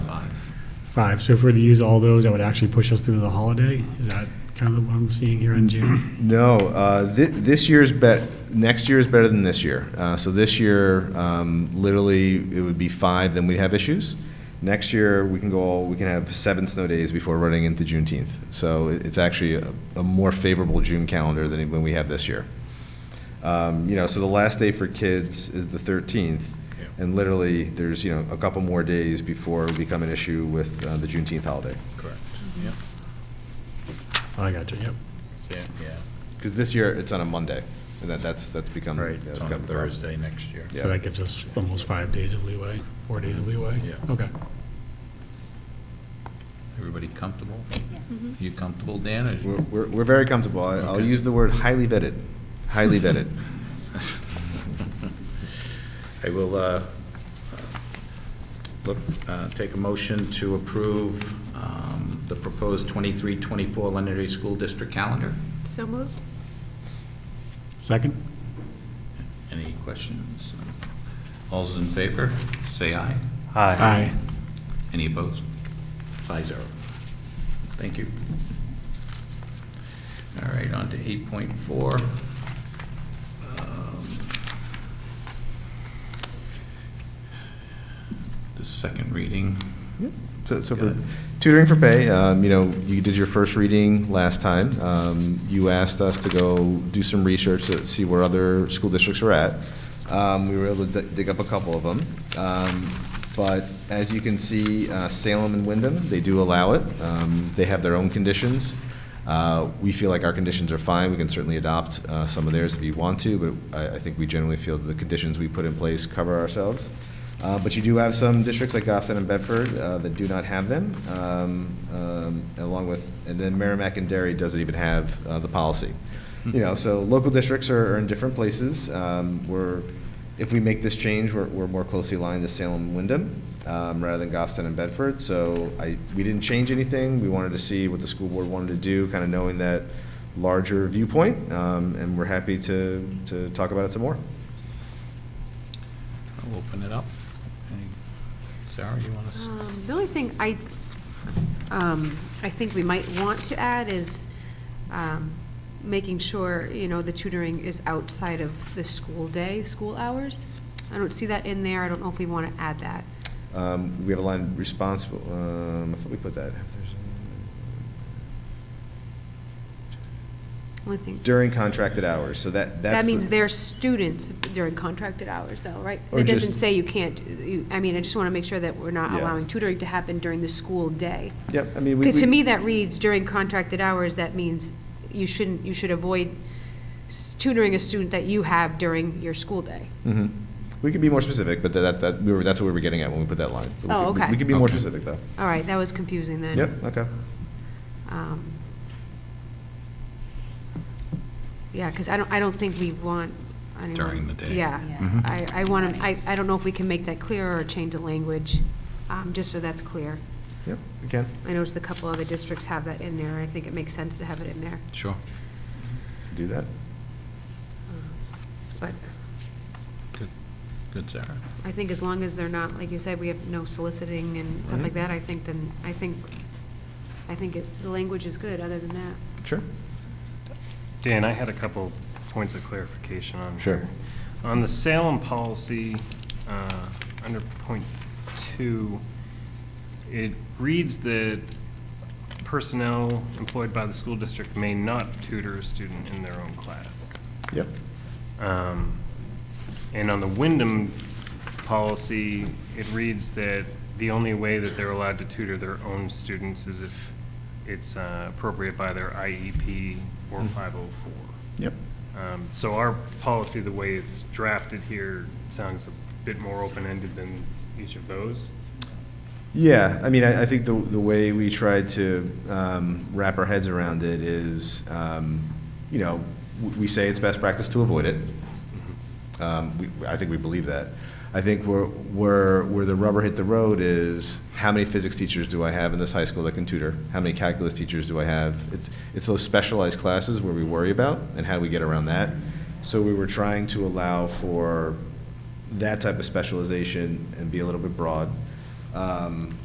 Five, so if we were to use all those, that would actually push us through the holiday? Is that kind of what I'm seeing here in June? No, uh, thi- this year's bet, next year is better than this year. Uh, so this year, um, literally, it would be five, then we'd have issues. Next year, we can go, all- we can have seven snow days before running into Juneteenth. So it- it's actually a, a more favorable June calendar than when we have this year. Um, you know, so the last day for kids is the 13th, and literally, there's, you know, a couple more days before it become an issue with uh, the Juneteenth holiday. Correct. Yep. Oh, I got you, yep. See it? Yeah. Because this year, it's on a Monday, and that, that's, that's become. yeah, It's on a become problem. Thursday next year. Yeah. So that gives us almost five days of leeway, four days of leeway? Yeah. Okay. Everybody comfortable? You comfortable, Dan? or- We're, we're, we're very comfortable. I- I'll Okay. use the word highly vetted, highly vetted. I will uh, look, uh, take a motion to approve um, the proposed 23-24 Londonderry School District calendar. So moved? Second? Any questions? All those in favor, say aye. Aye. Any opposed? Five zero. Thank you. All right, on to eight point four. Um, The second reading. So, so Got for it. tutoring for pay, um, you know, you did your first reading last time. Um, you asked us to go do some research to see where other school districts are at. Um, we were able to dig up a couple of them. Um, but as you can see, uh, Salem and Wyndham, they do allow it. Um, they have their own conditions. Uh, we feel like our conditions are fine. We can certainly adopt, uh, some of theirs if you want to, but I, I think we generally feel that the conditions we put in place cover ourselves. Uh, But you do have some districts like Goffstown and Bedford uh, that do not have them, um, um, along with, and then Merrimack and Derry doesn't even have uh, the policy. You know, so local districts are are in different places. Um, We're, if we make this change, we're, we're more closely aligned to Salem and Wyndham um, rather than Goffstown and Bedford. So I, we didn't change anything. We wanted to see what the school board wanted to do, kind of knowing that larger viewpoint, um, and we're happy to, to talk about it some more. I'll open it up. Any- Sarah, you want to? Um, The only thing I, um, I think we might want to add is um, making sure, you know, the tutoring is outside of the school day, school hours. I don't see that in there. I don't know if we want to add that. Um, we have a line responsible, um, I thought we put that. Only thing, During contracted hours, so that, that's. that means the- they're students during contracted hours though, right? Or That doesn't just- say you can't, you, I mean, I just want to make sure that we're not Yeah. allowing tutoring to happen during the school day. Yep, I mean, we. Because to we- me, that reads during contracted hours, that means you shouldn't, you should avoid s- tutoring a student that you have during your school day. Mhm. We could be more specific, but that, that, we were, that's what we were getting at when we put that line. But we Oh, could- we- okay. We could be more Okay. specific, though. All right, that was confusing then. Yep, okay. Um, Yeah, because I don't, I don't think we want anyone. During the day. Yeah. Yeah. Mm-hmm. Mhm. I, I want to, I, I don't know if we can make that clearer or change the language, um, just so that's clear. Yep, we can. I noticed a couple other districts have that in there, and I think it makes sense to have it in there, Sure. do that. but. Good, Good, Sarah. I think as long as they're not, like you said, we have no soliciting and stuff like Mhm. that, I think then, I think, I think it- the language is good, other than that. Sure. Dan, I had a couple points of clarification on Sure. here. On the Salem policy, uh, under point two, it reads that personnel employed by the school district may not tutor a student in their own class. Yep. Um, And on the Wyndham policy, it reads that the only way that they're allowed to tutor their own students is if it's uh, appropriate by their IEP or 504. Yep. Um, So our policy, the way it's drafted here, sounds a bit more open-ended than each of those. Yeah, I mean, I, I think the, the way we tried to um, wrap our heads around it is, um, you know, w- we say it's best practice to avoid it. Um, we, I think we believe that. I think where, where, where the rubber hit the road is, how many physics teachers do I have in this high school that can tutor? How many calculus teachers do I have? It's, it's those specialized classes where we worry about, and how do we get around that? So we were trying to allow for that type of specialization and be a little bit broad. Um,